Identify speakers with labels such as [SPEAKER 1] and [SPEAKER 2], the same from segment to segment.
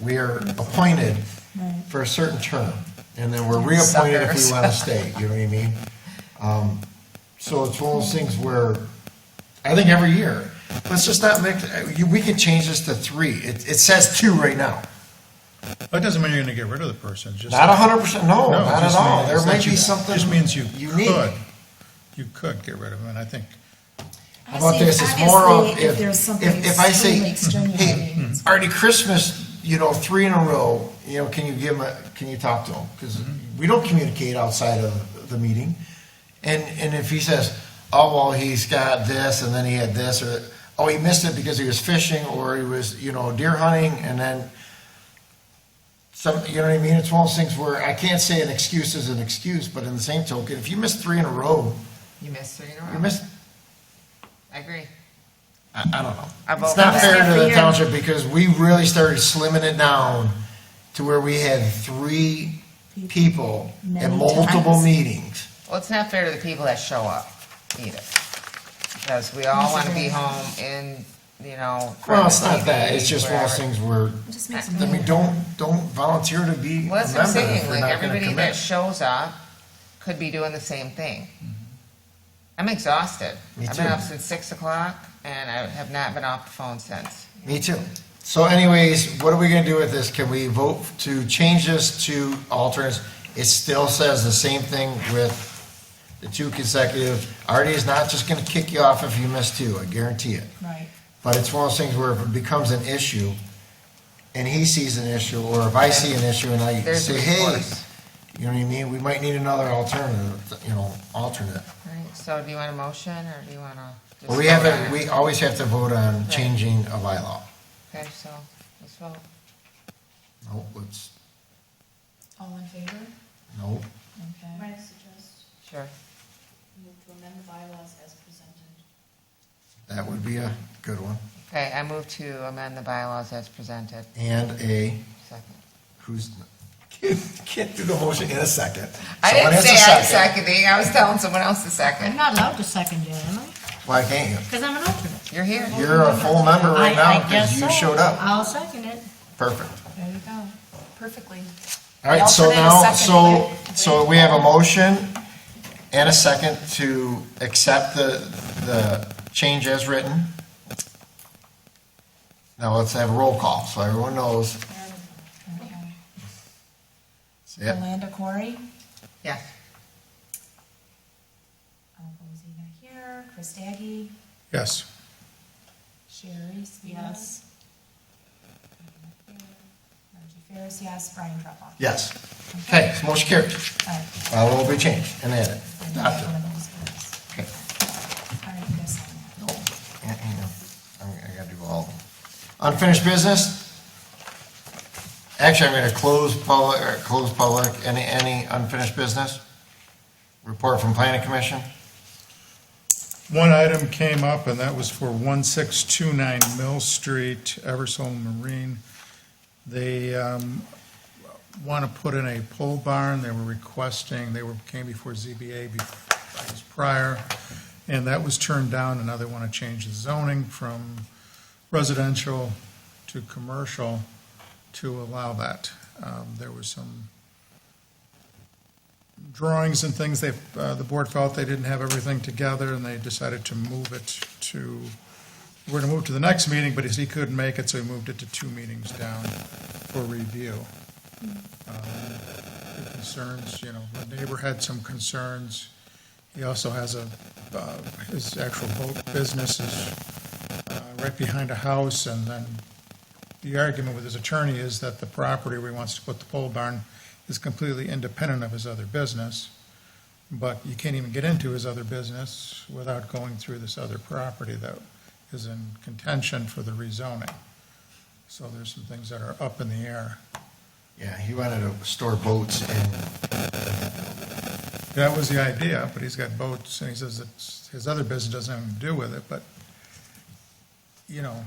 [SPEAKER 1] We are appointed for a certain term, and then we're reappointed if we
[SPEAKER 2] Suckers.
[SPEAKER 1] want to stay, you know what I mean? Um, So it's one of those things where, I think every year, let's just not make, you- we could change this to three. It, it says two right now.
[SPEAKER 3] That doesn't mean you're gonna get rid of the person, it's just.
[SPEAKER 1] Not a hundred percent, no,
[SPEAKER 3] No, it
[SPEAKER 1] not at
[SPEAKER 3] just
[SPEAKER 1] all.
[SPEAKER 3] means-
[SPEAKER 1] There
[SPEAKER 3] it's
[SPEAKER 1] might
[SPEAKER 3] that
[SPEAKER 1] be
[SPEAKER 3] you-
[SPEAKER 1] something
[SPEAKER 3] Just means you
[SPEAKER 1] unique.
[SPEAKER 3] could, you could get rid of him, and I think,
[SPEAKER 1] How about this, it's more of, if, if if I say, hey,
[SPEAKER 2] extraneous.
[SPEAKER 1] Artie, Christmas, you know, three in a row, you know, can you give him, a- can you talk to him? Because we don't communicate outside of the meeting. And, and if he says, oh, well, he's got this, and then he had this, or, oh, he missed it because he was fishing, or he was, you know, deer hunting, and then some, you know what I mean? It's one of those things where I can't say an excuse is an excuse, but in the same token, if you miss three in a row,
[SPEAKER 2] You missed three in a
[SPEAKER 1] you
[SPEAKER 2] row.
[SPEAKER 1] missed
[SPEAKER 2] I agree.
[SPEAKER 1] I, I don't know.
[SPEAKER 2] I vote
[SPEAKER 1] It's not
[SPEAKER 2] for
[SPEAKER 1] fair
[SPEAKER 2] that.
[SPEAKER 1] to the township because we really started slimming it down to where we had three people at
[SPEAKER 4] Many
[SPEAKER 1] multiple
[SPEAKER 4] times.
[SPEAKER 1] meetings.
[SPEAKER 2] Well, it's not fair to the people that show up either. Because we all want to be home in, you know. front
[SPEAKER 1] Well,
[SPEAKER 2] of
[SPEAKER 1] it's not
[SPEAKER 2] TV,
[SPEAKER 1] that, it's just one of those
[SPEAKER 2] wherever.
[SPEAKER 1] things where,
[SPEAKER 4] Just
[SPEAKER 2] makes
[SPEAKER 4] makes
[SPEAKER 2] it
[SPEAKER 1] I mean, don't, don't volunteer to be a
[SPEAKER 2] Well, that's what I'm
[SPEAKER 1] member if
[SPEAKER 2] saying,
[SPEAKER 1] you're
[SPEAKER 2] like,
[SPEAKER 1] not gonna
[SPEAKER 2] everybody that
[SPEAKER 1] commit. Mm-hmm.
[SPEAKER 2] shows up could be doing the same thing. I'm exhausted.
[SPEAKER 1] Me
[SPEAKER 2] I've been
[SPEAKER 1] too.
[SPEAKER 2] up since six o'clock and I have not been off the phone since.
[SPEAKER 1] Me too. So anyways, what are we gonna do with this? Can we vote to change this to alternates? It still says the same thing with the two consecutive. Artie is not just gonna kick you off if you miss two, I guarantee it.
[SPEAKER 4] Right.
[SPEAKER 1] But it's one of those things where if it becomes an issue, and he sees an issue, or if I see an issue and I
[SPEAKER 2] There's a
[SPEAKER 1] say, hey,
[SPEAKER 2] recourse.
[SPEAKER 1] you know what I mean, we might need another alternative, you know, alternate.
[SPEAKER 2] Right, so do you want a motion, or do you want to?
[SPEAKER 1] But we haven't, we always have to vote on changing a bylaw.
[SPEAKER 2] Okay, so, let's vote.
[SPEAKER 1] Nope, let's,
[SPEAKER 4] All in favor?
[SPEAKER 1] nope.
[SPEAKER 4] Okay.
[SPEAKER 5] Might I suggest
[SPEAKER 2] Sure.
[SPEAKER 5] move to amend the bylaws as presented?
[SPEAKER 1] That would be a good one.
[SPEAKER 2] Okay, I move to amend the bylaws as presented.
[SPEAKER 1] And a,
[SPEAKER 2] Second.
[SPEAKER 1] who's, can't do the motion in a second.
[SPEAKER 2] I
[SPEAKER 1] Someone
[SPEAKER 2] didn't
[SPEAKER 1] has
[SPEAKER 2] say
[SPEAKER 1] to
[SPEAKER 2] I was seconding, I was telling someone else to
[SPEAKER 4] I'm
[SPEAKER 2] second.
[SPEAKER 4] not allowed to second it, am I?
[SPEAKER 1] Why can't you?
[SPEAKER 4] Because I'm an alternate.
[SPEAKER 2] You're here.
[SPEAKER 1] You're a full member right
[SPEAKER 4] I- I
[SPEAKER 1] now because
[SPEAKER 4] guess
[SPEAKER 1] you
[SPEAKER 4] so.
[SPEAKER 1] showed up.
[SPEAKER 4] I'll second it.
[SPEAKER 1] Perfect.
[SPEAKER 4] There you go.
[SPEAKER 5] Perfectly.
[SPEAKER 1] All right, so
[SPEAKER 5] Alternate
[SPEAKER 1] now,
[SPEAKER 5] and
[SPEAKER 1] so,
[SPEAKER 5] second.
[SPEAKER 1] so we have a motion and a second to accept the, the change as written. Now let's have a roll call, so everyone knows. Yeah,
[SPEAKER 4] Yolanda Corey.
[SPEAKER 2] Yes.
[SPEAKER 4] Alvozina here. Chris Daggy.
[SPEAKER 3] yes,
[SPEAKER 4] Sherry Yes. Margie Ferris, yes. Brian Treppa.
[SPEAKER 1] yes. Okay, so motion carried.
[SPEAKER 4] All right.
[SPEAKER 1] Uh, will be changed and added.
[SPEAKER 4] And then
[SPEAKER 1] Adopted.
[SPEAKER 4] one of those votes.
[SPEAKER 1] Okay.
[SPEAKER 4] All right, you guys sign that.
[SPEAKER 1] No, hang- hang on. I I gotta do all. of them. Unfinished business? Actually, I'm gonna close public, or close public, any, any unfinished business? Report from planning commission?
[SPEAKER 3] One item came up, and that was for 1629 Mill Street, Eversole Marine. They want to put in a pole barn. They were requesting, they were, came before ZBA bef- I guess, prior, and that was turned down, and now they want to change the zoning from residential to commercial to allow that. Um, There was some drawings and things, they, uh, the board felt they didn't have everything together, and they decided to move it to, we're gonna move to the next meeting, but he couldn't make it, so he moved it to two meetings down for review. Um, the Concerns, you know, the neighbor had some concerns. He also has a, uh, his actual boat business is uh, right behind a house, and then the argument with his attorney is that the property where he wants to put the pole barn is completely independent of his other business, but you can't even get into his other business without going through this other property that is in contention for the rezoning. So there's some things that are up in the air.
[SPEAKER 1] Yeah, he wanted to store boats and
[SPEAKER 3] That was the idea, but he's got boats, and he says it's, his other business doesn't have anything to do with it, but, you know,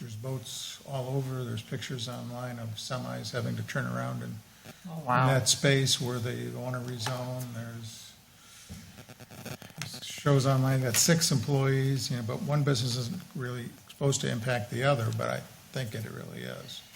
[SPEAKER 3] there's boats all over, there's pictures online of semis having to turn around and
[SPEAKER 2] Oh,
[SPEAKER 3] in
[SPEAKER 2] wow.
[SPEAKER 3] that space where they want to rezone, there's, shows online, got six employees, you know, but one business isn't really supposed to impact the other, but I think it really is.